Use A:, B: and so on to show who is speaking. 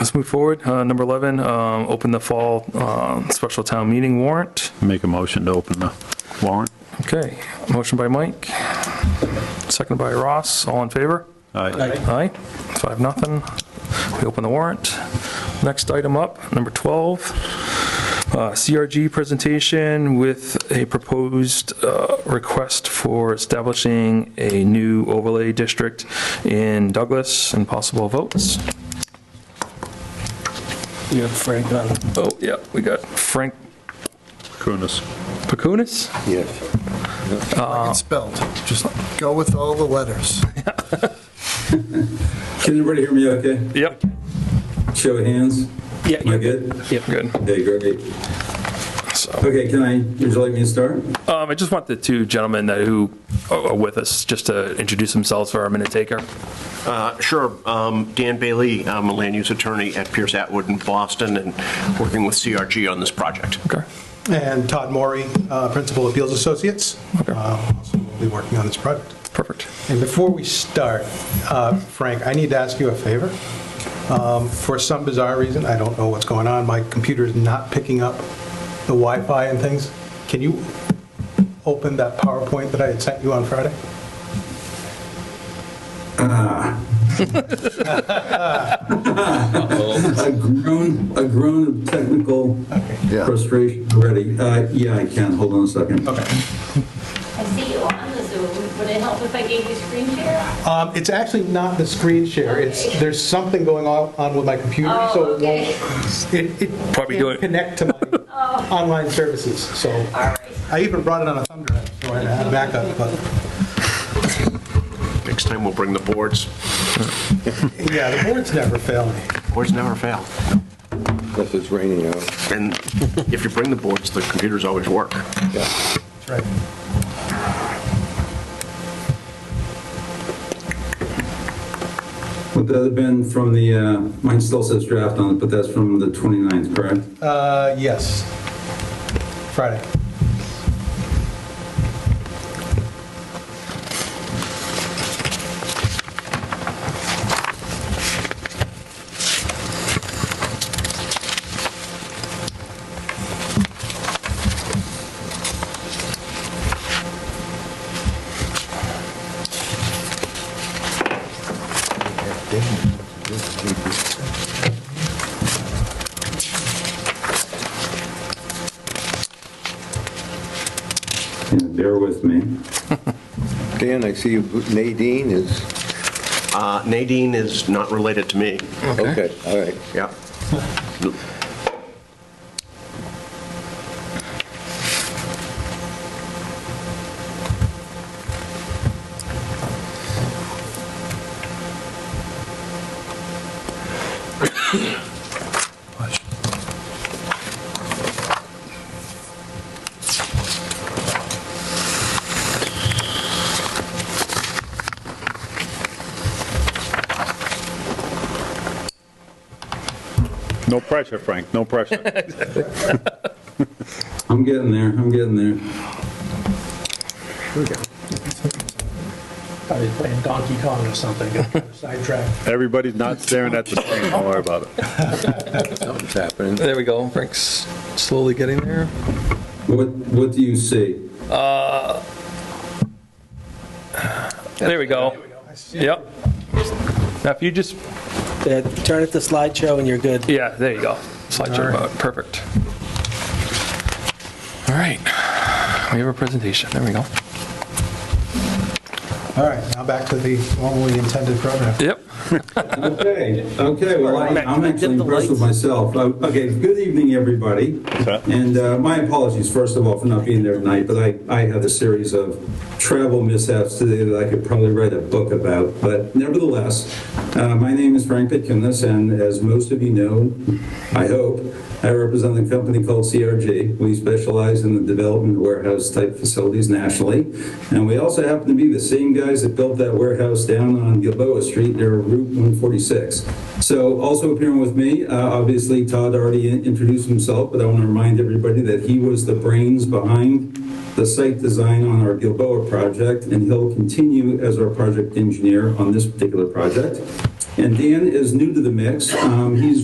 A: Let's move forward. Uh, Number 11, um, open the fall um, special town meeting warrant.
B: Make a motion to open the warrant.
A: Okay, motion by Mike, second by Ross, all in favor?
B: Aye.
A: Aye, five, nothing. We open the warrant. Next item up, number 12, uh, CRG presentation with a proposed uh, request for establishing a new overlay district in Douglas and possible votes.
C: You have Frank on.
A: Oh, yeah, we got Frank
B: Kunis.
A: Pacunis?
D: It's spelled. Just go with all the letters.
E: Can everybody hear me okay?
A: Yep,
E: Show of hands?
C: Yeah,
E: Am I
C: you're
E: good?
A: good.
E: Okay, great.
A: So-
E: Okay, can I, would you like me to start?
A: Um, I just want the two gentlemen that who are are with us just to introduce themselves for our minute taker.
F: Uh, Sure. Um, Dan Bailey, I'm a land use attorney at Pierce Atwood in Boston and working with CRG on this project.
A: Okay.
G: And Todd Maury, uh, Principal Appeals Associates.
A: Okay.
G: uh, also will Be working on this project.
A: Perfect.
G: And before we start, uh, Frank, I need to ask you a favor. Um, For some bizarre reason, I don't know what's going on, my computer is not picking up the Wi-Fi and things. Can you open that PowerPoint that I had sent you on Friday?
E: A groan, a groan of technical
D: Yeah.
E: frustration already. Uh, Yeah, I can, hold on a second.
G: Okay.
H: I see you on the Zoom. Would it help if I gave you screen share?
G: Um, It's actually not the screen share, it's, there's something going on on with my computer,
H: Oh,
G: so it
H: okay.
G: won't, it- it
A: Probably doing-
G: can't connect to my online services, so.
H: Oh. right.
G: I even brought it on a thumb drive, so I had a backup, but,
F: Next time, we'll bring the boards.
G: yeah, the boards never fail me.
F: Boards never fail.
I: Unless it's raining out.
F: And if you bring the boards, the computers always work.
G: That's right.
E: Would that have been from the, uh, mine still says draft on it, but that's from the 29th, correct?
G: Uh, yes. Friday.
E: Yeah, Bear with me.
I: Dan, I see you- Nadine is,
F: Uh, Nadine is not related to me.
I: okay, all right.
F: Yeah.
B: No pressure, Frank, no pressure.
E: I'm getting there, I'm getting there.
C: probably playing Donkey Kong or something, got kind of sidetracked.
B: Everybody's not staring at the screen, don't worry about it.
I: Something's happening.
A: There we go. Frank's slowly getting there.
E: What, what do you see?
A: There we go. Yep. Now, if you just,
C: Yeah, Turn it to slideshow and you're good.
A: yeah, there you go. Slideshow mode. Perfect. All right. We have a presentation. There we go.
G: All right, now back to the normally intended program.
A: Yep.
E: Okay, okay, well, I- I'm actually impressed with myself. Uh, Okay, good evening, everybody. And uh, my apologies, first of all, for not being there tonight, but I, I had a series of travel mishaps today that I could probably write a book about. But nevertheless, uh, my name is Frank Pitkinus, and as most of you know, I hope, I represent a company called CRG. We specialize in the development of warehouse-type facilities nationally, and we also happen to be the same guys that built that warehouse down on Gilboa Street near Route 146. So also appearing with me, uh, obviously Todd already in- introduced himself, but I want to remind everybody that he was the brains behind the site design on our Gilboa project, and he'll continue as our project engineer on this particular project. And Dan is new to the mix. Um, He's